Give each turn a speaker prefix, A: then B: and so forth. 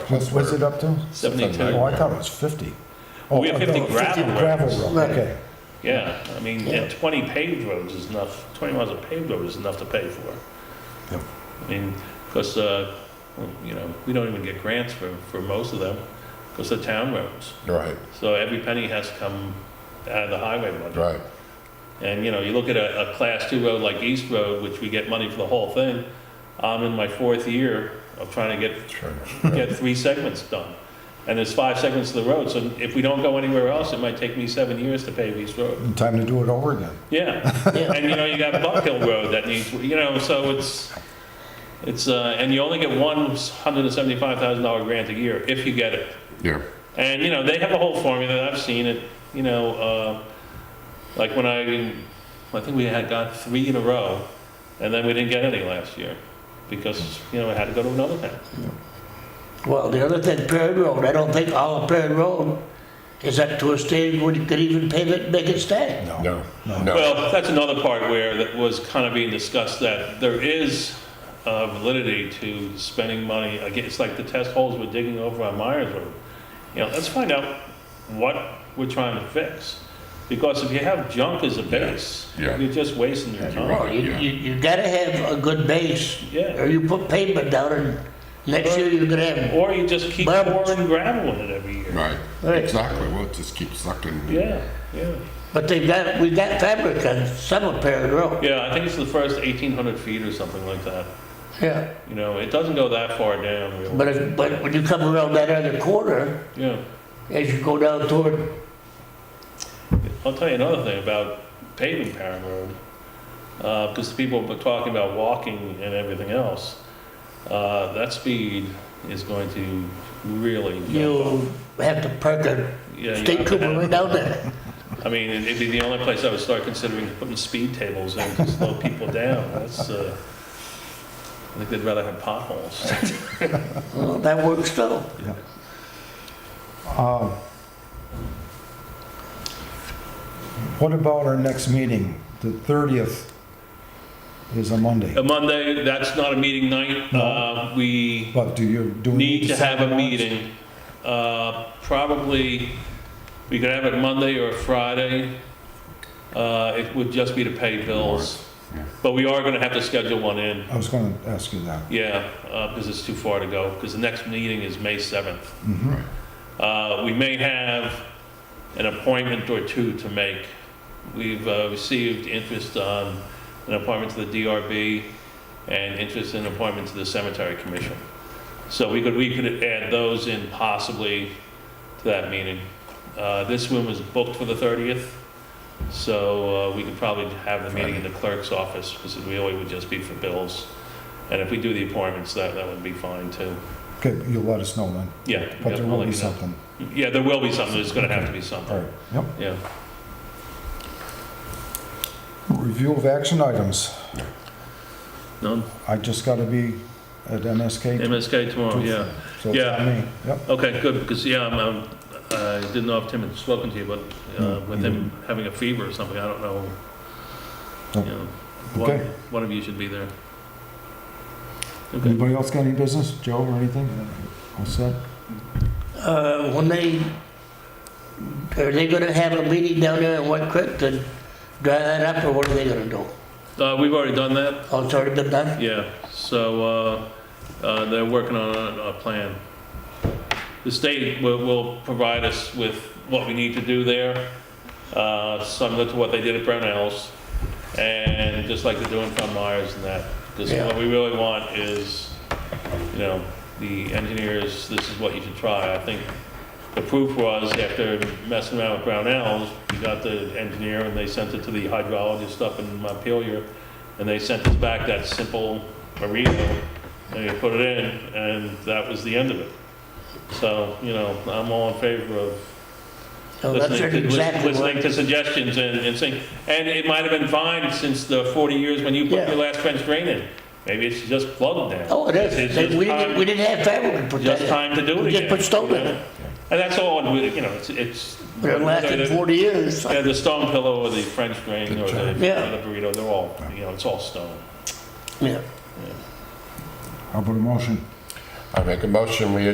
A: What's, what's it up to? Oh, I
B: 72.
A: thought it was 50. Oh,
B: We have
A: I
B: 50
A: thought it was
B: gravel roads.
A: Gravel road,
C: Right.
A: okay.
B: Yeah, I mean, and 20 paved roads is enough, 20 miles of paved road is enough to pay for.
A: Yeah.
B: I mean, because, you know, we don't even get grants for, for most of them, because they're town roads.
D: Right,
B: So every penny has to come out of the highway budget.
D: right.
B: And, you know, you look at a, a class two road like East Road, which we get money for the whole thing, I'm in my fourth year of trying to get
D: Sure.
B: get three segments done. And there's five segments of the road, so if we don't go anywhere else, it might take me seven years to pave East Road.
A: Time to do it over again.
B: Yeah, and you know, you got Buck Hill Road that needs, you know, so it's, it's, uh, and you only get one hundred and seventy-five thousand dollar grant a year, if you get it.
D: Yeah,
B: And, you know, they have a whole formula, I've seen it, you know, uh, like when I, I think we had got three in a row, and then we didn't get any last year, because, you know, I had to go to another town.
C: Well, the other thing, Perry Road, I don't think all of Perry Road is up to a stage where you could even pave it, make it stay.
D: no, no.
B: Well, that's another part where that was kind of being discussed, that there is uh, validity to spending money, again, it's like the test holes we're digging over on Myers Road. You know, let's find out what we're trying to fix, because if you have junk as a base,
D: Yeah.
B: you're just wasting your
D: you're
B: time.
D: right.
C: Well, you,
D: Yeah.
C: you, you gotta have a good base.
B: Yeah.
C: Or you put pavement down and next year you're gonna have,
B: Or you just keep
C: But-
B: pouring gravel in it every year.
D: Right,
C: Right.
D: exactly. Well, it just keeps sucking.
B: Yeah, yeah.
C: but they've got, we got fabric on some of Perry Road.
B: Yeah, I think it's the first 1,800 feet or something like that.
C: Yeah.
B: You know, it doesn't go that far down, really.
C: But if, but when you come around that other corner,
B: Yeah.
C: as you go down toward,
B: I'll tell you another thing about paving Parham Road, because people were talking about walking and everything else. Uh, That speed is going to really jump up.
C: you have to park a
B: Yeah, you
C: state
B: have to
C: trooper
B: have-
C: right down there.
B: I mean, it- it'd be the only place I would start considering putting speed tables in to slow people down. That's, uh, I think they'd rather have potholes.
C: Well, That works too.
A: Um, What about our next meeting? The 30th is a Monday.
B: A Monday, that's not a meeting night. Uh, We
A: But do you, do we
B: need to
A: set
B: have a
A: that?
B: meeting. Uh, Probably, we could have it Monday or Friday. Uh, It would just be to pay bills.
D: Yeah.
B: But we are going to have to schedule one in,
A: I was going to ask you that.
B: yeah, because it's too far to go, because the next meeting is May 7th.
D: Right.
B: Uh, We may have an appointment or two to make. We've uh, received interest on an appointment to the DRB and interest in appointment to the Cemetery Commission. So we could, we could add those in possibly to that meeting. Uh, This one was booked for the 30th, so uh, we could probably have the meeting in the clerk's office because it really would just be for bills. And if we do the appointments, that, that would be fine too.
A: Okay, you'll let us know then.
B: Yeah.
A: But there
B: yeah, I'll
A: will
B: let
A: be
B: you know.
A: something.
B: Yeah, there will be something, there's gonna have to be
A: All
B: something,
A: right, yep.
B: yeah.
A: Review of action items.
B: None,
A: I just got to be at NSK.
B: MSK tomorrow, yeah.
A: So it's on me, yep.
B: Okay, good, because, yeah, I'm, I'm- I didn't know if Tim had spoken to you, but
A: No,
B: uh, with
A: he
B: him having a fever or something, I don't know.
A: No.
B: You know, one,
A: Oh. Okay.
B: one of you should be there. Okay,
A: Anybody else got any business, Joe or anything? All set?
C: Uh, when they, are they gonna have a meeting down there in White Creek to dry that up, or what are they gonna do?
B: Uh, we've already done that,
C: Oh, it's already been done?
B: yeah, so, uh, uh, they're working on a, a plan. The state will, will provide us with what we need to do there, uh, similar to what they did at Brownells, and just like they're doing Fund Myers and that. Because
C: Yeah.
B: what we really want is, you know, the engineers, this is what you should try. I think the proof was after messing around with Brownells, we got the engineer and they sent it to the hydrologist up in Montpelier, and they sent us back that simple merino, and we put it in, and that was the end of it. So, you know, I'm all in favor of
C: No, Oh, that's
B: listening to, lis-
C: exactly
B: listening
C: what,
B: to suggestions and, and saying, and it might have been fine since the 40 years when you put
C: Yeah.
B: your last French drain in. Maybe it's just plugged down.
C: oh, it
B: It's
C: is,
B: just
C: They- we
B: time-
C: didn't, we didn't have fabric to put that
B: Just
C: in.
B: time to do it
C: We
B: again.
C: Just put stone
B: you
C: in
B: know?
C: it,
B: And that's all, and we- you know, it's, it's.
C: but it lasted
B: the-
C: forty years.
B: Yeah, the stone pillow or the French drain or the, or
C: Yeah.
B: the burrito, they're all, you know, it's all stone.
C: Yeah.
A: How about a motion?
D: I make a motion, we